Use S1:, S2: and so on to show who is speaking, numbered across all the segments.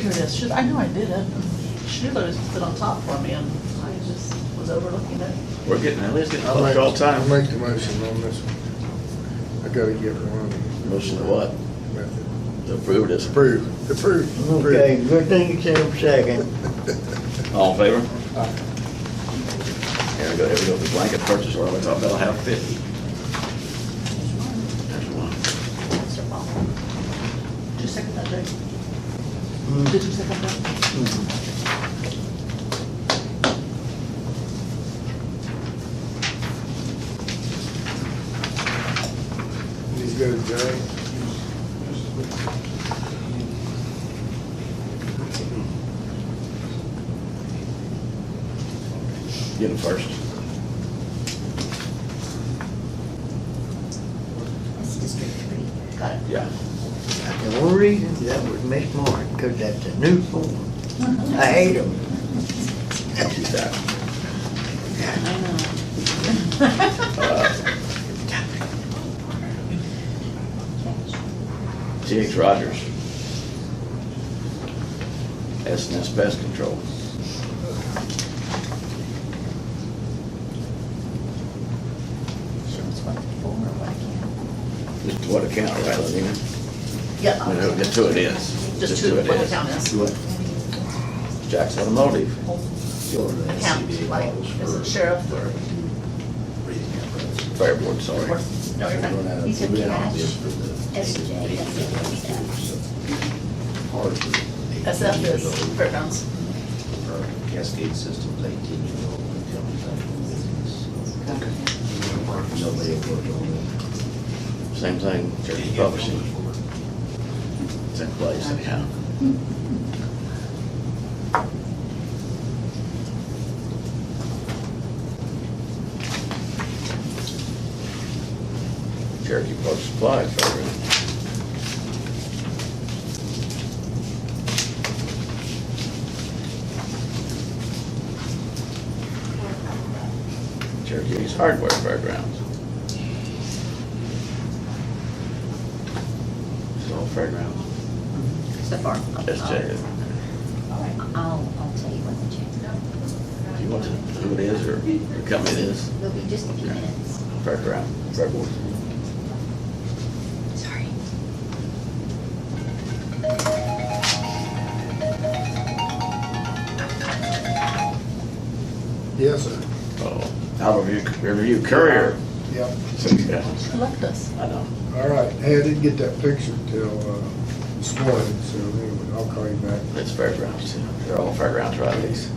S1: here it is. Should, I know I did it. Schuler has put on top for me and I just was overlooking it.
S2: We're getting, Elliot's getting
S3: I'll make-
S2: overlooked all the
S3: I'll
S2: time.
S3: make the motion on this one. I gotta get one.
S2: Motion to what?
S3: Method.
S2: To approve this.
S3: Approve, approve, approve.
S4: Okay, good thing you said it second.
S2: All in favor? There we go, there we go, the blanket purchase order, I thought that'll have fifty. There's one.
S1: That's your problem. Did you second that, Jake?
S4: Mm.
S1: Did you second that?
S3: These go to Jay.
S2: Get it first.
S5: That's District Three.
S1: Got it.
S2: Yeah.
S4: The only reason that was Miss Martin, 'cause that's a new form. I hate 'em.
S2: Keep that. Uh,
S1: I know.
S2: TX Rogers. S and S Pest Control.
S5: Shows what for, what account.
S2: Just what account, right, Lenina?
S1: Yeah,
S2: No, Just who it is.
S1: Just who-
S2: who it
S1: what
S2: is.
S1: account is.
S2: What? Jack's Automotive.
S1: account, like, is it sheriff or?
S2: Fair Board, sorry.
S1: or- No, you're fine.
S5: These are cash, SJ, that's the other stuff.
S1: SF is fairgrounds.
S6: Cascade Systems, eighteen-year-old, comes out of business. Nobody worked on it.
S2: Same thing, Church Publishing. It's in place anyhow. Cherokee Park Supply, favorite. Cherokee East Hardware Fairgrounds. It's all fairgrounds.
S5: So far.
S2: Let's check it.
S5: I'll, I'll tell you when to check.
S2: You want to, who it is or the company it is,
S5: It'll be just a few minutes.
S2: fairground, fairboard.
S5: Sorry.
S3: Yes, sir.
S2: Oh, Albert Review, Review Courier.
S3: Yep.
S2: Yeah,
S1: She left us.
S2: I know.
S3: All right, hey, I didn't get that picture till, uh, this morning, so anyway, I'll call you back.
S2: It's fairgrounds too. They're all fairgrounds, right, Lisa?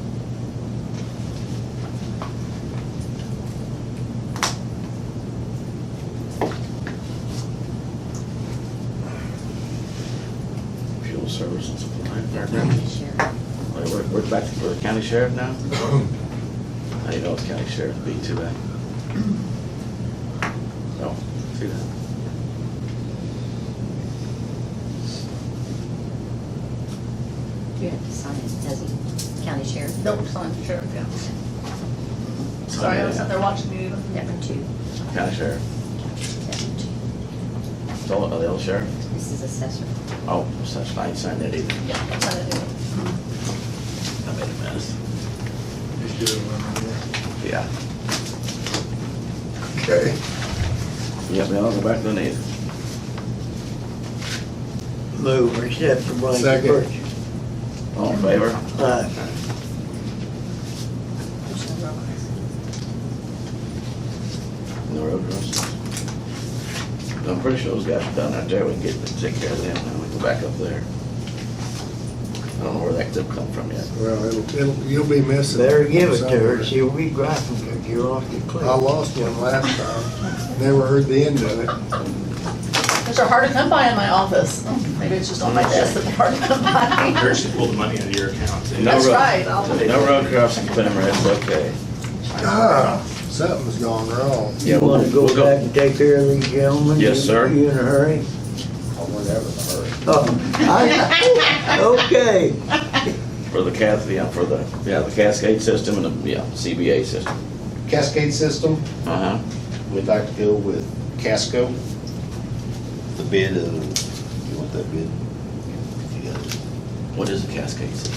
S2: Fuel service and supply, fairgrounds.
S5: Sure.
S2: Wait, We're, we're back to the county sheriff now? I didn't know it's county sheriff be too bad. No, too bad.
S5: You have to sign it, does he? County Sheriff,
S1: Nope, signed sheriff, yeah. Sorry, I was out there watching you.
S5: number two.
S2: County sheriff.
S5: Number two.
S2: It's all, oh, the old sheriff?
S5: This is assessor.
S2: Oh, such, I ain't signed that either.
S1: Yeah, I signed it.
S2: I made a mess.
S3: Just do it when
S2: Yeah.
S3: I'm there. Okay.
S2: Yeah, now I'll go back to the native.
S4: Move, or accept the blanket
S3: Second.
S4: purchase.
S2: All Oh, in favor?
S4: Aye.
S5: Which number on this?
S2: No road crossings. I'm pretty sure those guys are done out there. We can get, take care of them and we go back up there. I don't know where that tip come from yet.
S3: Well, it'll, it'll, you'll be missing.
S4: Better give it to her,
S3: somewhere.
S4: she'll be griping 'cause you lost your clue.
S3: I lost one last time, never heard the end of it.
S1: Those are hard to come by in my office. Maybe it's just on my desk that they're hard to come by.
S7: Here's, pull the money out of your account, too.
S2: No
S1: That's
S2: road-
S1: right, I'll-
S2: No road crossing camera, it's okay.
S3: Ah, something's gone wrong.
S2: Yeah,
S4: You
S2: we'll-
S4: wanna go
S2: we'll go.
S4: back and take care of these gentlemen?
S2: Yes,
S4: You-
S2: sir.
S4: You in a hurry?
S6: Oh, whatever, hurry.
S4: Oh, I, okay.
S2: For the Cath, yeah, for the, yeah, the Cascade system and the, yeah, CBA system.
S6: Cascade System,
S2: Uh-huh.
S6: we'd like to go with Casco. The bid of, you want that bid? You got it.
S2: What is a cascade system?